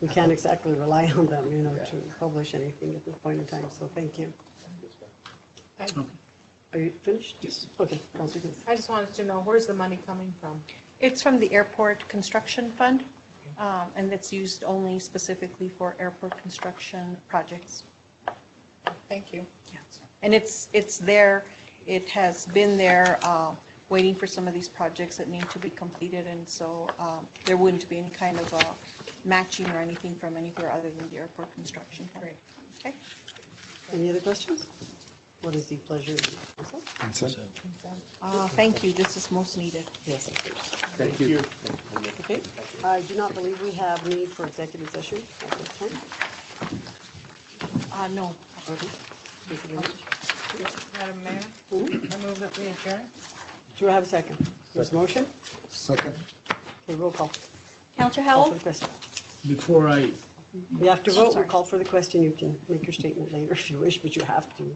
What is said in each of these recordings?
we can't exactly rely on them, you know, to publish anything at this point in time, so thank you. I Are you finished? Yes. Okay, Counselor Goodson. I just wanted to know, where's the money coming from? It's from the Airport Construction Fund, um, and it's used only specifically for airport construction projects. Thank you. And it's, it's there, it has been there, uh, waiting for some of these projects that need to be completed, and so um, there wouldn't be any kind of uh, matching or anything from anywhere other than the airport construction. fund. Great. Okay? Any other questions? What is the pleasure of the council? Uh, Thank you, this is most needed. Yes, of course. Thank you. Okay. I do not believe we have need for executive session at this time. Uh, No, Okay. Thank you very much. Madam Mayor, Mhm. I move that we adjourn. Do I have a second? There's a motion? Second. Okay, roll call. Counselor Call for Howell? the question. Before I, We have to vote, we Sorry. call for the question, you can make your statement later if you wish, but you have to.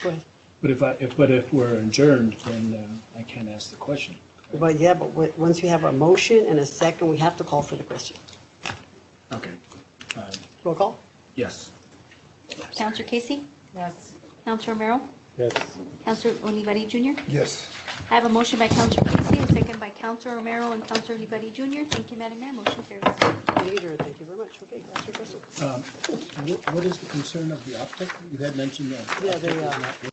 Go ahead. but if I, if, but if we're adjourned, then uh, I can't ask the question. But yeah, but w- once we have a motion and a second, we have to call for the question. Okay. Um, Roll call? Yes. Counselor Casey? Yes. Counselor Romero? Yes. Counselor Olivari Jr.? Yes. I have a motion by Counselor Casey, a second by Counselor Romero and Counselor Olivari Jr. Thank you, Madam Mayor. Motion carries. Leader, thank you very much. Okay, that's your question. What is the concern of the optic? You had mentioned that. Yeah, they, optic is uh, not